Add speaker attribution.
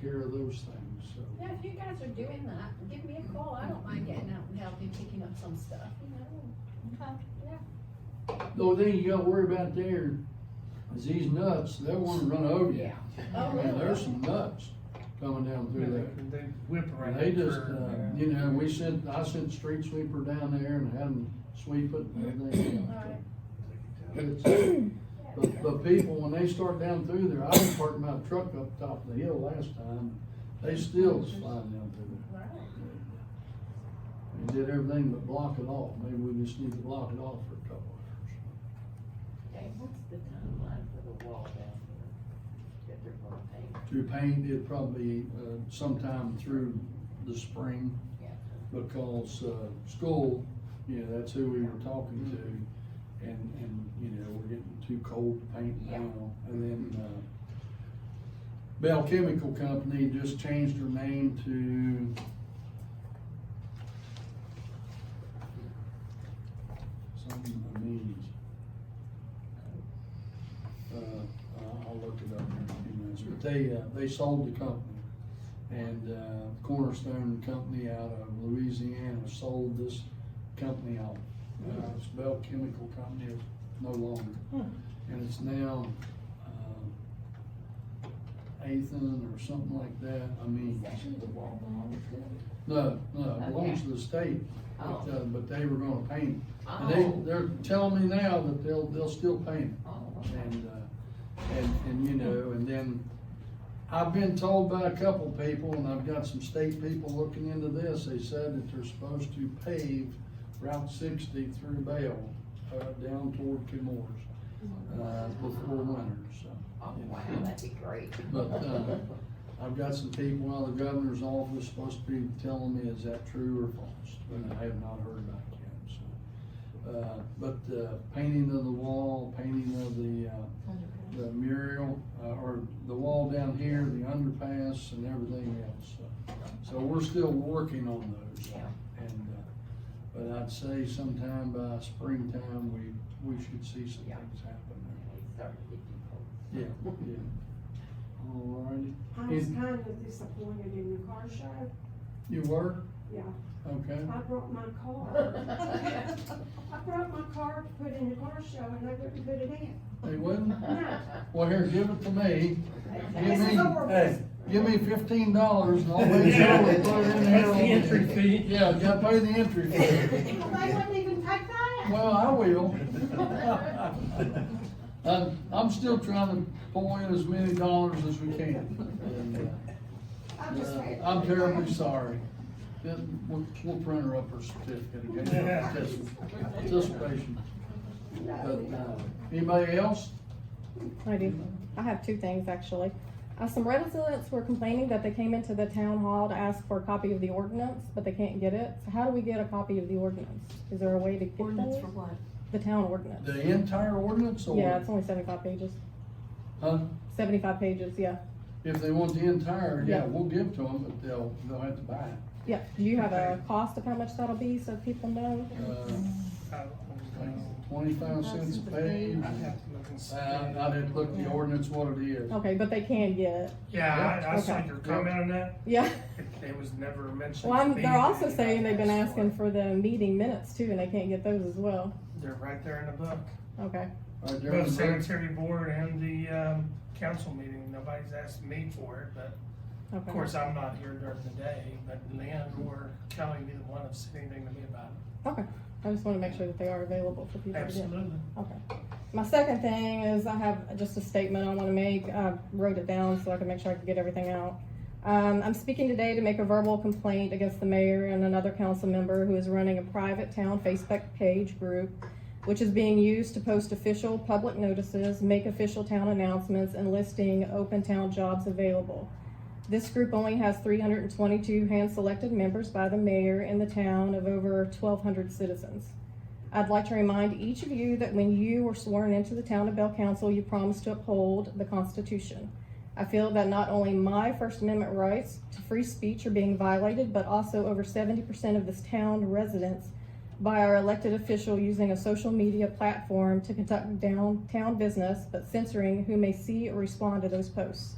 Speaker 1: care of those things, so.
Speaker 2: Yeah, if you guys are doing that, give me a call, I don't mind getting out and helping, picking up some stuff, you know? Yeah.
Speaker 1: The only thing you gotta worry about there is these nuts, they'll wanna run over you.
Speaker 2: Oh,
Speaker 1: I mean, there's
Speaker 2: really?
Speaker 1: some nuts coming down through there.
Speaker 3: They whip
Speaker 1: And
Speaker 3: around.
Speaker 1: They
Speaker 3: the
Speaker 1: just,
Speaker 3: curve
Speaker 1: uh,
Speaker 3: there.
Speaker 1: you know, we sent, I sent street sweeper down there and had them sweep it and everything.
Speaker 2: Alright.
Speaker 1: But it's- But, but people, when they start down through there, I was parking my truck up top of the hill last time, they still was flying down through
Speaker 2: Right.
Speaker 1: there. They did everything but block it off, maybe we just need to block it off for a couple hours.
Speaker 4: Okay, what's the timeline for the wall down there that they're gonna paint?
Speaker 1: Through paint, it'd probably, uh, sometime through the spring.
Speaker 4: Yeah.
Speaker 1: because, uh, school, you know, that's who we were talking to. And, and, you know, we're getting too cold to paint
Speaker 4: Yeah.
Speaker 1: now. And then, uh, Bell Chemical Company just changed their name to. Something I mean. Uh, I'll- I'll look it up in a few minutes, but they, uh, they sold the company. And uh, Cornerstone Company out of Louisiana sold this company off. Uh, It's Bell Chemical Company, it's no longer. And it's now um, Athan or something like that, I
Speaker 4: Is
Speaker 1: mean,
Speaker 4: that who the wall belongs to?
Speaker 1: no, no, it belongs to the state.
Speaker 4: Oh,
Speaker 1: But, uh, but they were gonna paint it. And uh, they, they're telling me now that they'll, they'll still paint it.
Speaker 4: Oh, okay.
Speaker 1: And, uh, and, and you know, and then I've been told by a couple people, and I've got some state people looking into this, they said that they're supposed to pave Route sixty through Bell, uh, down toward Kimores, uh, before winter, so.
Speaker 4: Oh, wow, Oh, that'd be great.
Speaker 1: But, uh, I've got some people out of the governor's office supposed to be telling me, is that true or false? But I have not heard back yet, so. Uh, but, uh, painting of the wall, painting of the, uh, the mural, uh, or the wall down here, the underpass and everything else. So- So we're still working on those.
Speaker 4: Yeah.
Speaker 1: And, uh, but I'd say sometime by springtime, we, we should see some
Speaker 4: Yeah.
Speaker 1: things happen
Speaker 4: It's starting to get too cold.
Speaker 1: there. Yeah, yeah. All righty.
Speaker 5: I was kind of disappointed in the car show,
Speaker 1: You were?
Speaker 5: yeah,
Speaker 1: Okay.
Speaker 5: I brought my car, I brought my car to put in the car show and I wouldn't put it in.
Speaker 1: They wouldn't?
Speaker 5: No,
Speaker 1: Well, here, give it to me. Give
Speaker 5: This
Speaker 1: me,
Speaker 5: is over
Speaker 1: hey, give me fifteen dollars and I'll make sure
Speaker 3: Yeah.
Speaker 1: we put it in there.
Speaker 3: That's the entry fee.
Speaker 1: Yeah, gotta pay the entry fee.
Speaker 5: well, they wouldn't even take that.
Speaker 1: Well, I will.
Speaker 3: Oh,
Speaker 1: I'm, I'm still trying to pull in as many dollars as we can. And,
Speaker 5: I
Speaker 1: uh,
Speaker 5: just said-
Speaker 1: I'm terribly sorry. Then We'll, we'll print her up her certificate again. Just- Just patient. But, uh, anybody else?
Speaker 6: I do. I have two things actually. Uh, some residents were complaining that they came into the town hall to ask for a copy of the ordinance, but they can't get it. So how do we get a copy of the ordinance? Is there a way to get
Speaker 7: Ordinance
Speaker 6: those?
Speaker 7: for what?
Speaker 6: The town ordinance.
Speaker 1: The entire ordinance or?
Speaker 6: Yeah, it's only seventy-five pages.
Speaker 1: Huh?
Speaker 6: Seventy-five pages, yeah.
Speaker 1: If they want the entire, yeah,
Speaker 6: Yeah.
Speaker 1: we'll give to them, but they'll, they'll have to buy it.
Speaker 6: Yeah. Do you have a cost of how much that'll be so people know?
Speaker 1: Uh,
Speaker 3: I don't know.
Speaker 1: like twenty-five cents a page. Oh.
Speaker 3: I'd have to look and see.
Speaker 1: Uh, I didn't look the ordinance what it is.
Speaker 6: Okay, but they can get it.
Speaker 3: Yeah, I, I saw
Speaker 6: Okay.
Speaker 3: your comment on that,
Speaker 6: Yeah.
Speaker 3: it, it was never mentioned.
Speaker 6: Well, I'm,
Speaker 3: to me
Speaker 6: they're
Speaker 3: that
Speaker 6: also
Speaker 3: anybody
Speaker 6: saying they've been
Speaker 3: asked for
Speaker 6: asking
Speaker 3: it.
Speaker 6: for the meeting minutes too, and they can't get those as well.
Speaker 3: They're right there in the book,
Speaker 6: Okay.
Speaker 1: Right there in
Speaker 3: both
Speaker 1: the book.
Speaker 3: sanitary board and the, um, council meeting, nobody's asked me for it, but
Speaker 6: Okay.
Speaker 3: of course, I'm not here during the day, but Lynn or Kelly, neither one have said anything to me about
Speaker 6: Okay. I just want to make sure that they are available for
Speaker 3: it.
Speaker 6: people to get.
Speaker 3: Absolutely.
Speaker 6: My second thing is I have just a statement I want to make. I wrote it down so I can make sure I can get everything out. Um, I'm speaking today to make a verbal complaint against the mayor and another council member who is running a private town Facebook page group, which is being used to post official public notices, make official town announcements, and listing open town jobs available. This group only has three hundred and twenty-two hand-selected members by the mayor in the town of over twelve hundred citizens. I'd like to remind each of you that when you were sworn into the town of Bell Council, you promised to uphold the Constitution. I feel that not only my First Amendment rights to free speech are being violated, but also over seventy percent of this town residents by our elected official using a social media platform to conduct downtown business, but censoring who may see or respond to those posts.